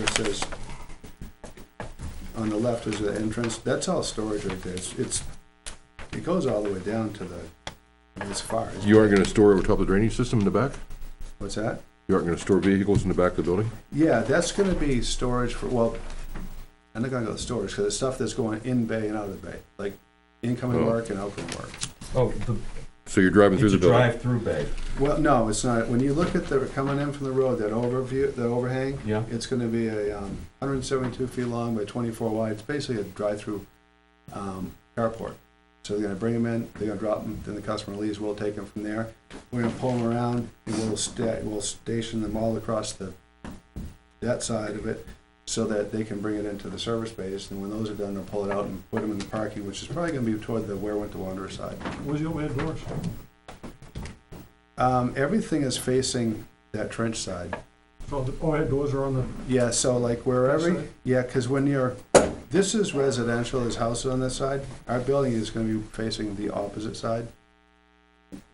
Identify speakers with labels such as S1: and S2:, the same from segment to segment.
S1: there's, on the left is the entrance, that's all storage right there, it's, it's, it goes all the way down to the, I mean, it's far. isn't it?
S2: You aren't gonna store over top of the drainage system in the back?
S1: What's that?
S2: You aren't gonna store vehicles in the back of the building?
S1: Yeah, that's gonna be storage for, well, I'm not gonna go to storage, cause it's stuff that's going in bay and out of the bay, like incoming
S2: Oh.
S1: work and outgoing work.
S3: Oh, the,
S2: So you're driving through
S3: it's
S2: the
S3: a
S2: building?
S3: drive-through bay.
S1: Well, no, it's not. When you look at the, coming in from the road, that overview, that overhang,
S3: Yeah.
S1: it's gonna be a, um, hundred and seventy-two feet long by twenty-four wide. It's basically a drive-through, um, carport. So they're gonna bring them in, they're gonna drop them, then the customer leaves, we'll take them from there. We're gonna pull them around, and we'll sta, we'll station them all across the, that side of it, so that they can bring it into the service base, and when those are done, they'll pull it out and put them in the parking, which is probably gonna be toward the Ware Winter Wanderer side.
S4: Where's your man doors?
S1: Um, everything is facing that trench side.
S4: Oh, the overhead doors are on the,
S1: Yeah, so like wherever,
S4: Outside?
S1: yeah, because when you're, this is residential, there's houses on this side. Our building is gonna be facing the opposite side.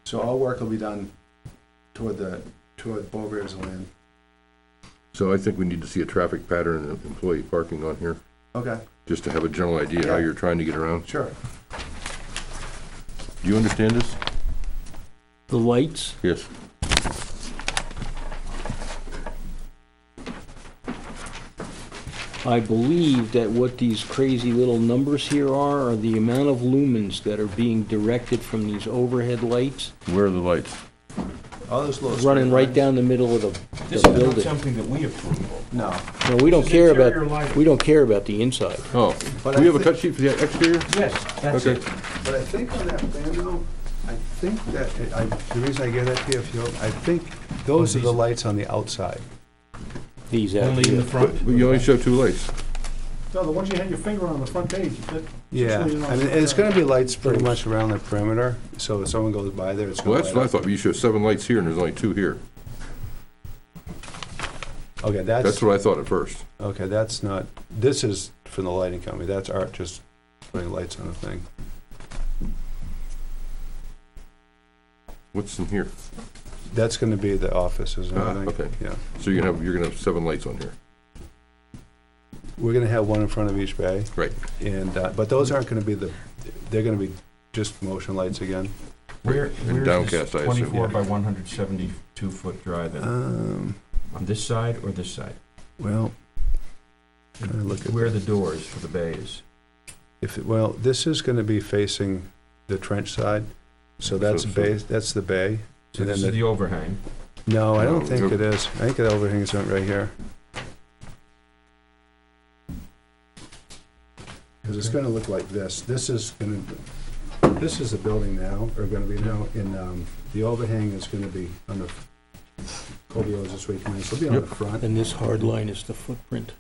S1: So all work will be done toward the, toward Bover's land.
S2: So I think we need to see a traffic pattern and employee parking on here,
S1: Okay,
S2: just to have a general idea how
S1: Yeah.
S2: you're trying to get around.
S1: sure.
S2: Do you understand this?
S5: The lights,
S2: Yes.
S5: I believe that what these crazy little numbers here are, are the amount of lumens that are being directed from these overhead lights,
S2: Where are the lights?
S1: All those little.
S5: running
S1: straight
S5: right
S1: lines-
S5: down the middle of the,
S3: This
S5: the
S3: is not
S5: building.
S3: something that we approve of.
S1: No,
S5: No, we don't
S3: is
S5: care
S3: interior
S5: about,
S3: lighting.
S5: we don't care about the inside.
S2: Oh,
S1: But
S2: do
S1: I
S2: we have a
S1: thi-
S2: cut sheet for the exterior?
S3: Yes, that's
S2: Okay.
S3: it.
S1: but I think on that plan though, I think that, it- I, the reason I gave that to you, if you, I think those are the lights on the outside.
S5: These out
S3: Only in the
S5: here.
S3: front.
S2: But but you only show two lights.
S4: no, the ones you had your finger on, the front page. that-
S1: Yeah, I
S4: that's really not-
S1: mean, it's gonna be lights pretty much around the perimeter, so if someone goes by there, it's gonna
S2: Well,
S1: light
S2: that's what I
S1: up.
S2: thought. but You show seven lights here and there's only two here.
S1: Okay, that's,
S2: That's what I thought at first.
S1: okay, that's not, this is from the lighting company, that's Art just putting lights on the thing.
S2: What's in here?
S1: That's gonna be the offices and
S2: Ah,
S1: everything,
S2: okay.
S1: yeah.
S2: So you're gonna have, you're gonna have seven lights on here.
S1: We're gonna have one in front of each bay.
S2: Right.
S1: And, uh, but those aren't gonna be the, they're gonna be just motion lights again.
S3: Where,
S2: And
S3: where's this
S2: downcast, I assume,
S3: twenty-four
S2: yeah.
S3: by one hundred seventy-two foot drive in?
S1: Um,
S3: On this side or this side?
S1: well, I'm gonna look at
S3: Where are the doors for the bay is?
S1: If, it- well, this is gonna be facing the trench side, so that's
S2: So- so-
S1: bay, that's the bay.
S3: So
S1: And
S3: this
S1: then
S3: is the overhang.
S1: No, I
S2: No,
S1: don't think
S2: no.
S1: it is. I think the overhang's on right here. Because it's gonna look like this. This is gonna, this is the building now, or gonna be now, and, um, the overhang is gonna be on the, Kobe owes this way, so it'll be on the front.
S5: And this hard line is the footprint,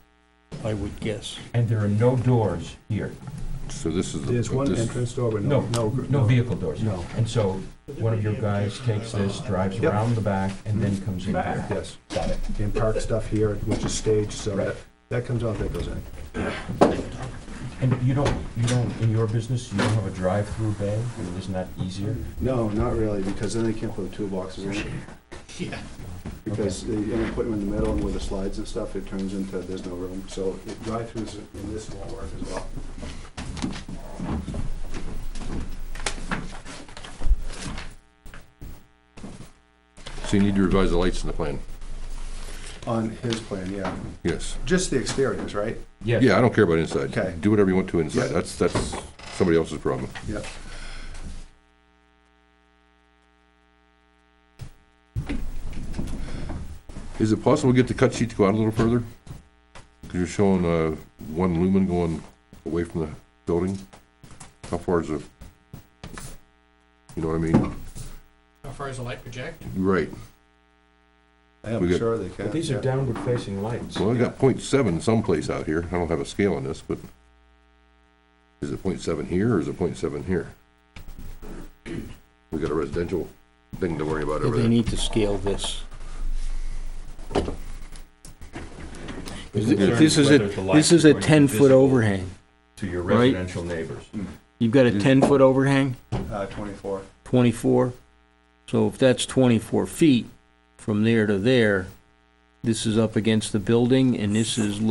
S5: I would guess.
S3: And there are no doors here.
S2: So this is. the-
S1: There's one
S2: this-
S1: entrance door, but no,
S3: No,
S1: no.
S3: no vehicle doors.
S1: No,
S3: And so one of your guys takes this, drives
S1: Yep.
S3: around the back, and then comes in here.
S1: yes.
S3: Got it.
S1: And park stuff here, which is staged, so
S3: Right.
S1: that, that comes out, that goes in.
S3: And you don't, you don't, in your business, you don't have a drive-through bay? I mean, isn't that easier?
S1: No, not really, because then they can't put the toolboxes in. Yeah. Because they, you know, put them in the middle and with the slides and stuff, it turns into, there's no room, so it- drive-throughs in this won't work as well.
S2: So you need to revise the lights in the plan.
S1: On his plan, yeah,
S2: Yes.
S1: just the exteriors, right?
S3: Yes.
S2: Yeah, I don't care about inside.
S1: Okay.
S2: Do whatever you want to
S1: Yeah.
S2: inside. That's, that's somebody else's problem.
S1: Yep.
S2: Is it possible to get the cut sheet to go out a little further? Because you're showing uh, one lumen going away from the building. How far is it? You know what I mean?
S6: How far is the light project?
S2: Right.
S1: I
S2: We
S1: am
S2: got-
S1: sure they can.
S3: But these are
S1: yeah.
S3: downward-facing lights.
S2: Well, I got point seven someplace out here. I don't have a scale on this, but is it point seven here or is it point seven here? We got a residential thing to worry about over
S5: They
S2: there.
S5: need to scale this.
S2: concern
S5: This is a, this is a 10-foot overhang.
S3: To your
S5: right?
S3: residential neighbors.
S5: You've got a 10-foot overhang?
S1: Uh, twenty-four.
S5: 24. So if that's 24 feet from there to there, this is up against the building, and this is